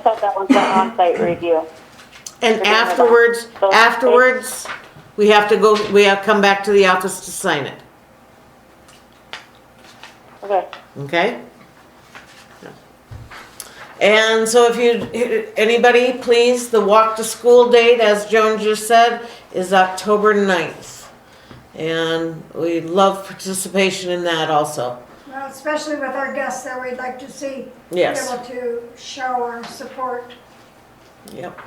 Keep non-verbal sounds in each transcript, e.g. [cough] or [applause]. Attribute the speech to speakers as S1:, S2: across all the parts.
S1: thought that was an on-site review.
S2: And
S1: Forget about
S2: afterwards,
S1: those
S2: afterwards, we have to go, we have to come back to the office to sign it,
S1: Okay,
S2: okay? And so if you, anybody, please, the walk to school date, as Joan just said, is October 9th. And we love participation in that also.
S3: Well, especially with our guests that we'd like to see.
S2: Yes.
S3: Able to show our support.
S2: Yep.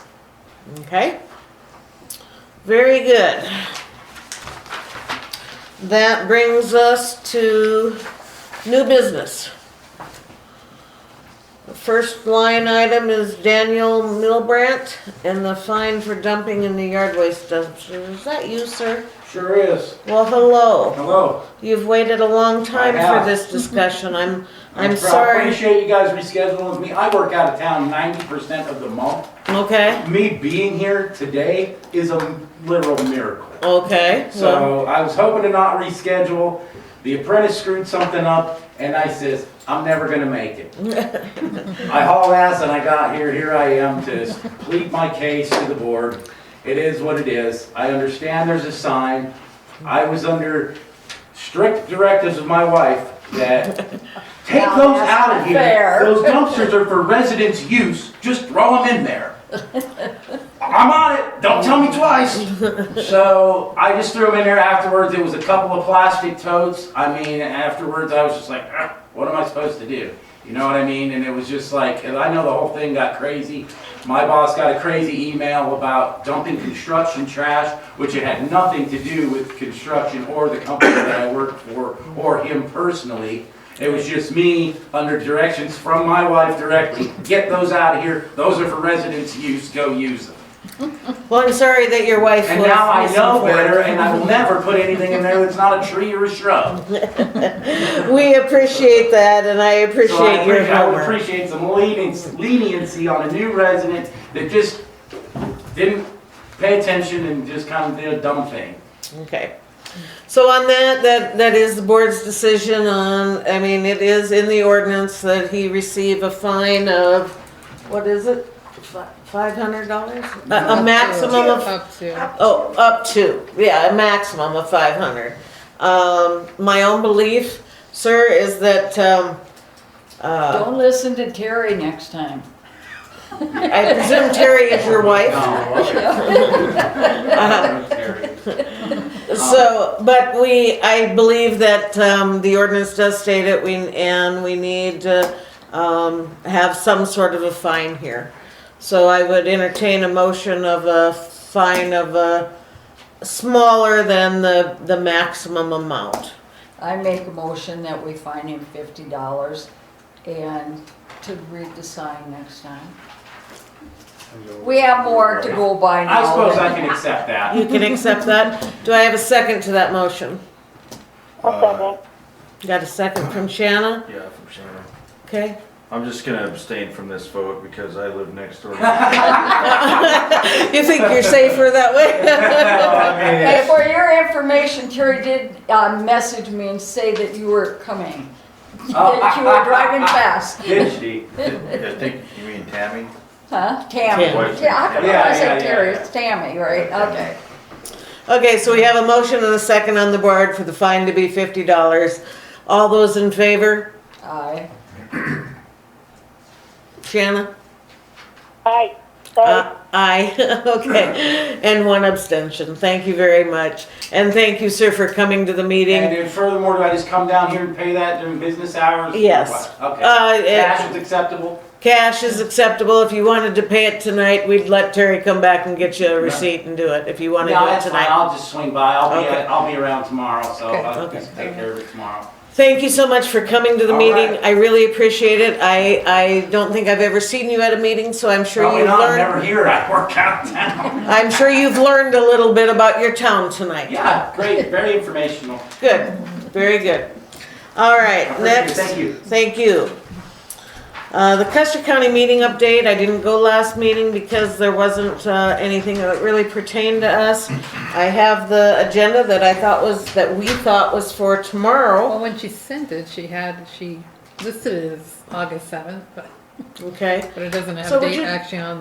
S2: Okay. Very good. That brings us to new business. The first line item is Daniel Milbrandt and the fine for dumping in the yard waste dumpster. Is that you, sir?
S4: Sure is.
S2: Well, hello.
S4: Hello.
S2: You've waited a long time
S4: I have.
S2: for this discussion.
S4: [laughs]
S2: I'm,
S4: I
S2: I'm sorry.
S4: appreciate you guys rescheduling me. I work out of town ninety percent of the month.
S2: Okay,
S4: Me being here today is a literal miracle.
S2: okay. well,
S4: So I was hoping to not reschedule. The apprentice screwed something up and I says, I'm never gonna make
S5: [laughs]
S4: it. I haul ass and I got here, here I am to plead my case to the board. It is what it is. I understand there's a sign. I was under strict directives of my wife that take
S5: Now,
S4: those
S5: that's
S4: out of
S5: not
S4: here.
S5: fair.
S4: Those dumpsters are for residents' use. Just throw them in
S5: [laughs]
S4: there. I'm on it. Don't tell me twice. So I just threw them in there afterwards. It was a couple of plastic totes. I mean, afterwards I was just like, "Ah, what am I supposed to do? You know what I mean? And it was just like, and I know the whole thing got crazy. My boss got a crazy email about dumping construction trash, which it had nothing to do with construction or the company that I worked for or him personally. It was just me under directions from my wife directly. Get those out of here. Those are for residents' use. Go use them.
S2: Well, I'm sorry that your wife was.
S4: And now I know
S2: misinformed.
S4: better, and I will never put anything in there that's not a tree or a shrub.
S2: We appreciate that, and I
S4: So I
S2: appreciate your
S4: appre- I would
S2: help.
S4: appreciate some leniency, leniency on a new resident that just didn't pay attention and just kind of did a dumb thing.
S2: Okay. So on that, that, that is the board's decision on, I mean, it is in the ordinance that he receive a fine of, what is it? Five hundred dollars? A a maximum of
S6: Up to.
S2: Oh, up to, yeah, a maximum of five hundred. Um, my own belief, sir, is that, um, uh,
S5: Don't listen to Terry next time.
S2: I presume Terry is your wife?
S4: wife?
S2: So, but we, I believe that um, the ordinance does state it, we, and we need to um, have some sort of a fine here. So I would entertain a motion of a fine of a smaller than the, the maximum amount.
S5: I make a motion that we fine him fifty dollars and to read the sign next time. We have more to go by now.
S4: I suppose I can accept that.
S2: You can accept that? Do I have a second to that motion?
S1: I'll second.
S2: Got a second from Shanna?
S7: Yeah, from Shannon.
S2: Okay.
S7: I'm just gonna abstain from this vote because I live
S5: [laughs]
S7: next door.
S2: You think you're safer that way? [laughs]
S5: Hey, for your information, Terry did, uh, message me and say that you were coming,
S4: Oh,
S5: that you were driving fast.
S4: Did she?
S7: I think, you mean Tammy?
S5: Huh? Tammy.
S2: Tammy.
S5: Yeah, I
S4: Yeah,
S5: I
S4: yeah, yeah,
S5: said Terry,
S4: yeah.
S5: it's Tammy, right? Okay.
S2: Okay, so we have a motion and a second on the board for the fine to be fifty dollars. All those in favor?
S5: Aye.
S2: Shanna?
S1: Aye,
S2: Uh,
S1: sorry,
S2: aye, [laughs] okay. And one abstention. Thank you very much. And thank you, sir, for coming to the
S4: And
S2: meeting.
S4: then furthermore, do I just come down here and pay that during business hours?
S2: Yes.
S4: Okay.
S2: Uh, it-
S4: Cash is acceptable?
S2: Cash is acceptable. If you wanted to pay it tonight, we'd let Terry come back and get you a receipt and do it, if you
S4: No,
S2: wanna do it
S4: that's fine.
S2: tonight.
S4: I'll just swing by. I'll be,
S2: Okay.
S4: I'll be around tomorrow, so
S2: Okay,
S4: I'll
S2: okay.
S4: just take care of it tomorrow.
S2: Thank you so much for coming to the
S4: All
S2: meeting.
S4: right.
S2: I really appreciate it. I, I don't think I've ever seen you at a meeting, so I'm sure
S4: Probably
S2: you've
S4: not. I'm
S2: learned.
S4: Oh, never here. I work out [laughs] of town.
S2: I'm sure you've learned a little bit about your town tonight.
S4: Yeah, great. Very informational.
S2: Good, very good. All right, next.
S4: Thank you.
S2: Thank you. Uh, the Custer County meeting update, I didn't go last meeting because there wasn't, uh, anything that really pertained to us. I have the agenda that I thought was, that we thought was for tomorrow.
S6: Well, when she sent it, she had, she listed it as August seventh, but
S2: okay?
S6: But it doesn't
S2: So
S6: have
S2: would
S6: date
S2: you-
S6: action on